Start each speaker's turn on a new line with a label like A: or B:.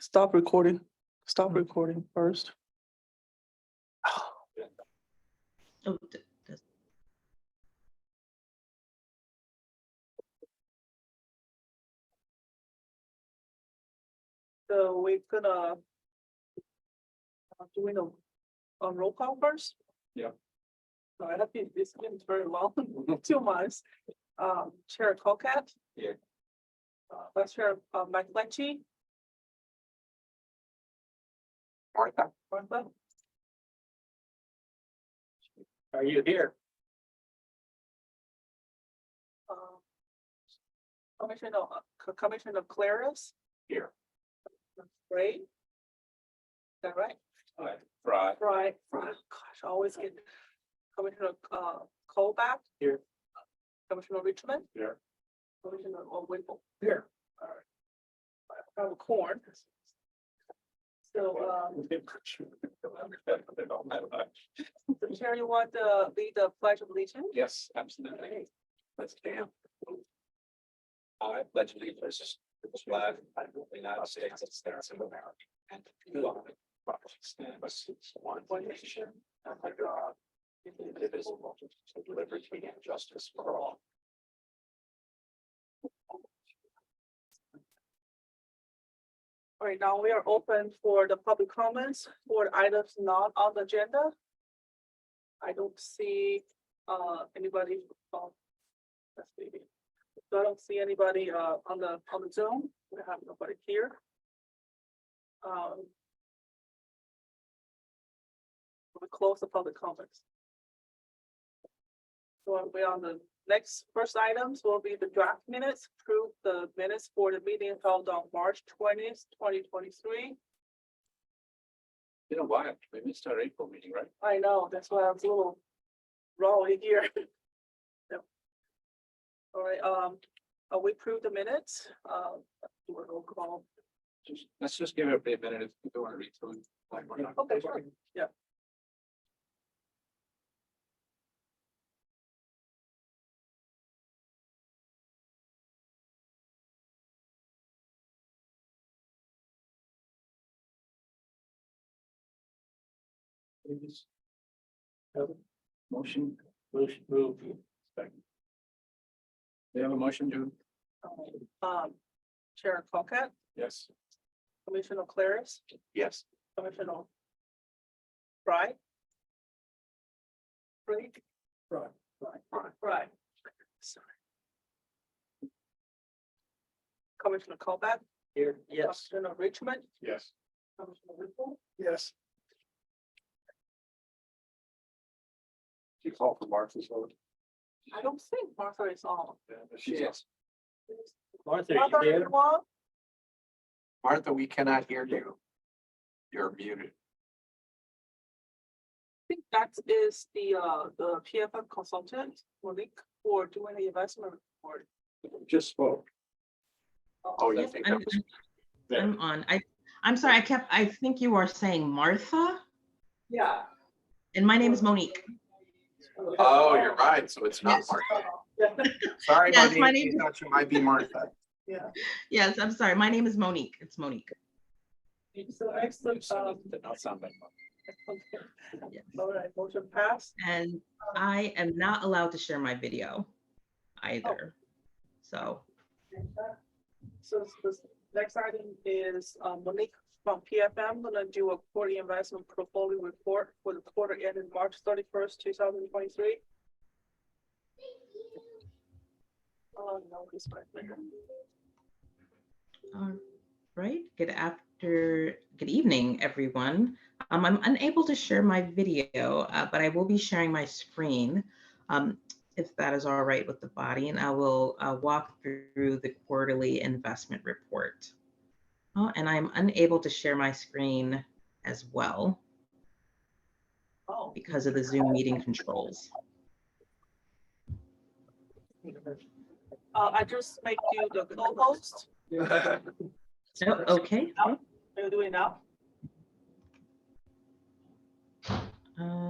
A: Stop recording. Stop recording first.
B: Oh, th- that's-
A: So we're gonna uh, doing a, a roll call first?
C: Yeah.
A: So I have been, it's been very long, two months. Um, Chair Colcat.
C: Yeah.
A: Uh, Vice Chair, uh, Mike Lecce. Martha. Martha.
C: Are you here?
A: um, Commissioner, uh, Co- Commissioner Claris,
C: Here.
A: right? Is that right?
C: Right.
A: Right, right, gosh, I always get Commissioner uh Colback.
C: Here.
A: Commissioner Richmond.
C: Here.
A: Commissioner uh, Whipple.
C: Here.
A: I have a corn. So um, so Chair, you want to lead the pledge of allegiance?
C: Yes, absolutely. Let's camp. I pledge allegiance to the flag of the United States of States of America and to the Republic which stands one nation under God, indivisible, with liberty and justice for all.
A: All right, now we are open for the public comments for items not on the agenda. I don't see uh anybody. um, That's maybe. So I don't see anybody uh on the on the Zoom. We have nobody here. Um. We close the public comments. So we're on the next first items will be the draft minutes, prove the minutes for the meeting held on March twentieth, twenty twenty-three.
C: You know why? We missed our April meeting, right?
A: I know, that's why I was a little raw in here. Yep. All right, um, uh, we approved the minutes, um, do a roll call.
C: Just- Let's just give everybody a minute if you don't want to read through. it, like we're not-
A: Okay, sure.
C: Please. Have a Motion, motion move. Second. They have a motion, Jude?
A: Um, Chair Colcat,
C: Yes.
A: Commissioner Claris,
C: Yes.
A: Commissioner Fry. Free,
C: Right.
A: Fry. Sorry. Commissioner Colback.
C: Here.
A: Commissioner Richmond,
C: Yes.
A: Commissioner Whipple.
C: Yes. Do you call for Martha's vote?
A: I don't think Martha is on.
C: She is.
D: Martha,
A: Martha,
D: are
A: are
D: you
A: you on?
C: Martha, we cannot hear you. You're muted.
A: I think that is the, uh, the PFF consultant, Monique, for doing the investment report.
C: Just spoke. Oh, you
B: yes,
C: think that
B: I'm-
C: was,
D: there?
B: I'm on. I, I'm sorry, I kept, I think you are saying Martha,
A: Yeah.
B: and my name is Monique.
C: oh, you're right. So it's not
B: Yes.
C: Martha.
A: right.
C: Sorry,
B: Yes, my
C: Monique,
B: name-
C: you thought you might be Martha.
B: Yes, I'm sorry. My name is Monique. It's Monique.
A: So excellent, um,
C: Did not sound like Martha.
A: okay. All right, motion passed.
B: And I am not allowed to share my video either. So,
A: So s- this next item is, um, Monique from PFM, gonna do a quarterly investment portfolio report for the quarter ended March thirty-first, two thousand twenty-three. Oh, no, he's right there.
B: all right. Good after, good evening, everyone. Um, I'm unable to share my video, uh, but I will be sharing my screen. Um, if that is all right with the body, and I will uh, walk through the quarterly investment report. Oh, and I'm unable to share my screen as well
A: Oh.
B: because of the Zoom meeting controls.
A: Uh, I just make you the co-host.
B: So, okay.
A: Are you doing now?
B: Uh,